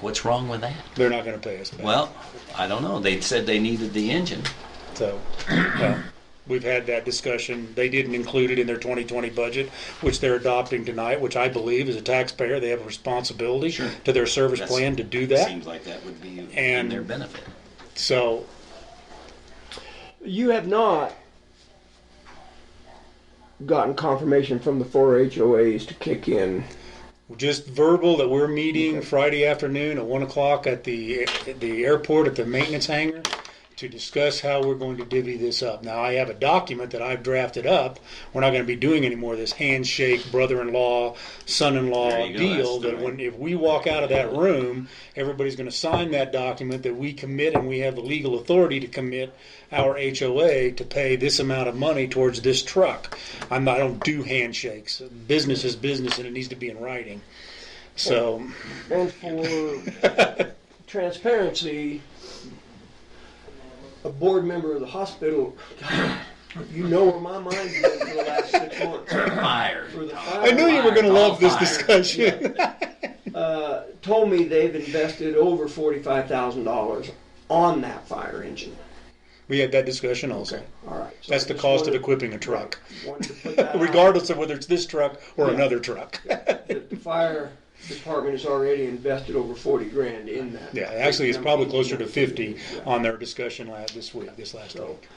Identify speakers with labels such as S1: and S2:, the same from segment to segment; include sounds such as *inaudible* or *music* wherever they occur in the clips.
S1: What's wrong with that?
S2: They're not going to pay us back.
S1: Well, I don't know. They said they needed the engine.
S2: So, well, we've had that discussion. They didn't include it in their 2020 budget, which they're adopting tonight, which I believe as a taxpayer, they have a responsibility
S1: Sure.
S2: to their service
S1: That's-
S2: plan to do that.
S1: Seems like that would be in
S2: And-
S1: their benefit.
S2: So,
S3: You have not gotten confirmation from the four HOAs to kick in.
S2: just verbal that we're meeting Friday afternoon at one o'clock at the, at the airport at the maintenance hangar to discuss how we're going to divvy this up. Now, I have a document that I've drafted up. We're not going to be doing any more of this handshake, brother-in-law,
S1: There
S2: son-in-law
S1: you go.
S2: deal.
S1: That's
S2: That
S1: the
S2: when,
S1: way.
S2: if we walk out of that room, everybody's going to sign that document that we commit and we have the legal authority to commit our HOA to pay this amount of money towards this truck. I'm not, I don't do handshakes. Business is business and it needs to be in writing. So,
S3: And for
S2: *laughs*
S3: transparency, a board member of the hospital, you know where my mind's been for the last six months.
S1: Fire.
S3: For the
S2: I knew you were going to love this
S1: Fire.
S2: discussion.
S3: uh, told me they've invested over forty-five thousand dollars on that fire engine.
S2: *laughs* We had that discussion also.
S3: All right. so
S2: That's
S3: I
S2: the
S3: just
S2: cost of
S3: wanted-
S2: equipping a *laughs* truck,
S3: wanted to put that out,
S2: regardless of whether it's this truck or another truck. *laughs*
S3: that The fire department has already invested over forty grand in that.
S2: Yeah, actually, it's probably closer to 50 on their discussion lab this week, this last week.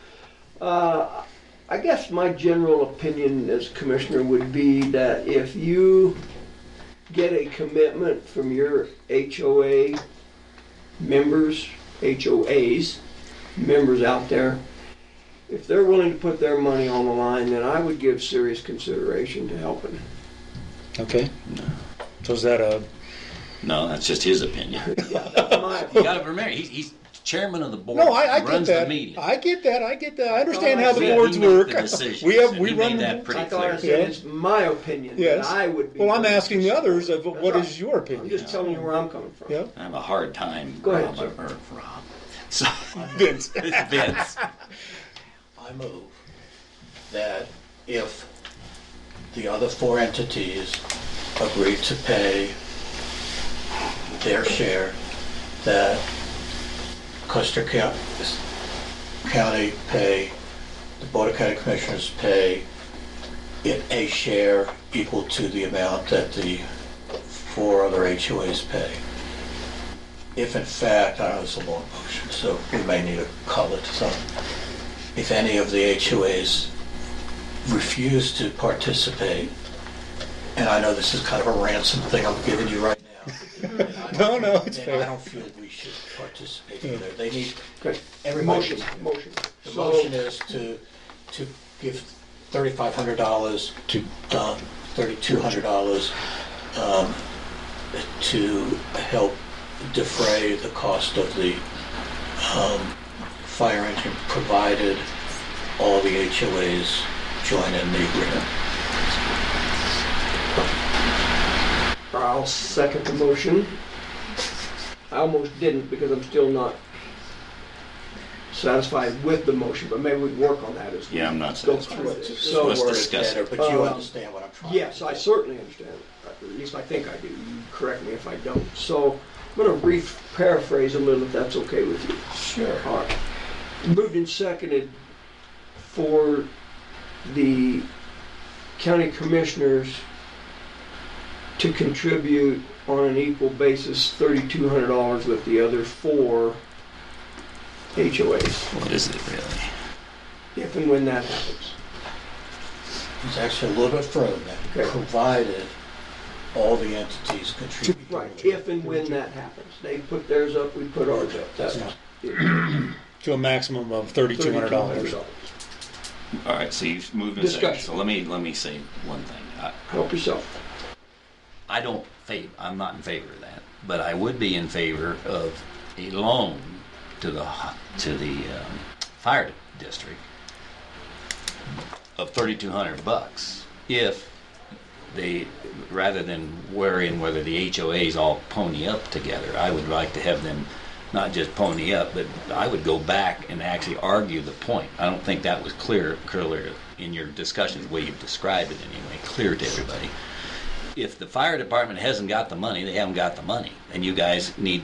S3: Uh, I guess my general opinion as commissioner would be that if you get a commitment from your HOA members, HOAs, members out there, if they're willing to put their money on the line, then I would give serious consideration
S2: *laughs*
S3: to helping.
S2: Okay. So is that a,
S1: No, that's just his opinion.
S3: My-
S1: *laughs* You got to remember, he's, he's chairman of the board.
S2: no, I, I get
S1: runs
S2: that.
S1: the meeting.
S2: I get that. I get that. I understand
S3: Oh, I
S2: how the
S3: see.
S2: boards
S1: He made
S2: work.
S1: the decisions,
S2: We have,
S1: and
S2: we
S1: he
S2: run.
S1: made that
S2: the-
S1: pretty
S3: I thought I
S1: clear.
S3: said it's my opinion that
S2: Yes.
S3: I would be.
S2: Well, I'm
S3: willing to
S2: asking the others of
S3: support.
S2: what
S3: That's
S2: is your
S3: right. I'm
S2: opinion?
S3: just telling you where I'm coming from.
S2: Yeah.
S1: I have a hard time.
S3: Go ahead,
S1: Rob, or, Rob. So, *laughs*
S3: *laughs*
S2: Vince.
S1: it's Vince.
S4: I move that if the other four entities agree to pay their share, that Custer Co- County pay, the Board of County Commissioners pay it a share equal to the amount that the four other HOAs pay. If in fact, I know it's a long motion, so we may need to call it something if any of the HOAs refuse to participate, and I know this is kind of a ransom thing I'm giving you right now.
S2: *laughs* No, no, it's
S4: Then I
S2: fair.
S4: don't feel we should participate either. They need,
S3: Okay.
S4: everybody,
S3: Motion, motion.
S4: the
S3: So-
S4: motion is to, to give thirty-five hundred dollars to Don, thirty-two hundred dollars um, to help defray the cost of the um, fire engine, provided all the HOAs join in the agreement.
S3: I'll second the motion. I almost didn't because I'm still not satisfied with the motion, but maybe we'd work on that as well.
S1: Yeah, I'm not
S3: Go
S1: satisfied.
S3: through it.
S4: Let's-
S3: So
S1: let's
S3: worth it.
S1: discuss- Yes.
S4: Better, But you
S3: Um,
S4: understand what I'm trying to do.
S3: Yes, I certainly understand. At least I think I do. You Correct me if I don't. So I'm going to re paraphrase a little if that's okay with you.
S4: Sure.
S3: All right. Moved and seconded for the county commissioners to contribute on an equal basis thirty-two hundred dollars with the other four HOAs,
S1: What is it really?
S3: if and when that happens.
S4: It's actually a little bit further than that,
S3: Okay.
S4: provided all the entities contribute.
S3: Right, if and when that happens. They put theirs up, we put ours up. That's
S4: That's-
S2: To a maximum of $3,200.
S3: $3,200.
S1: All right, so you've moved in second.
S3: Discussion.
S1: So let me let me say one thing. I,
S3: Help yourself.
S1: I don't favor. I'm not in favor of that, but I would be in favor of a loan to the ho- to the um, fire district of thirty-two hundred bucks if they rather than worrying whether the HOAs all pony up together. I would like to have them not just pony up, but I would go back and actually argue the point. I don't think that was clear clear in your discussions, the way you've described it anyway, clear to everybody if the fire department hasn't got the money, they haven't got the money. And you guys need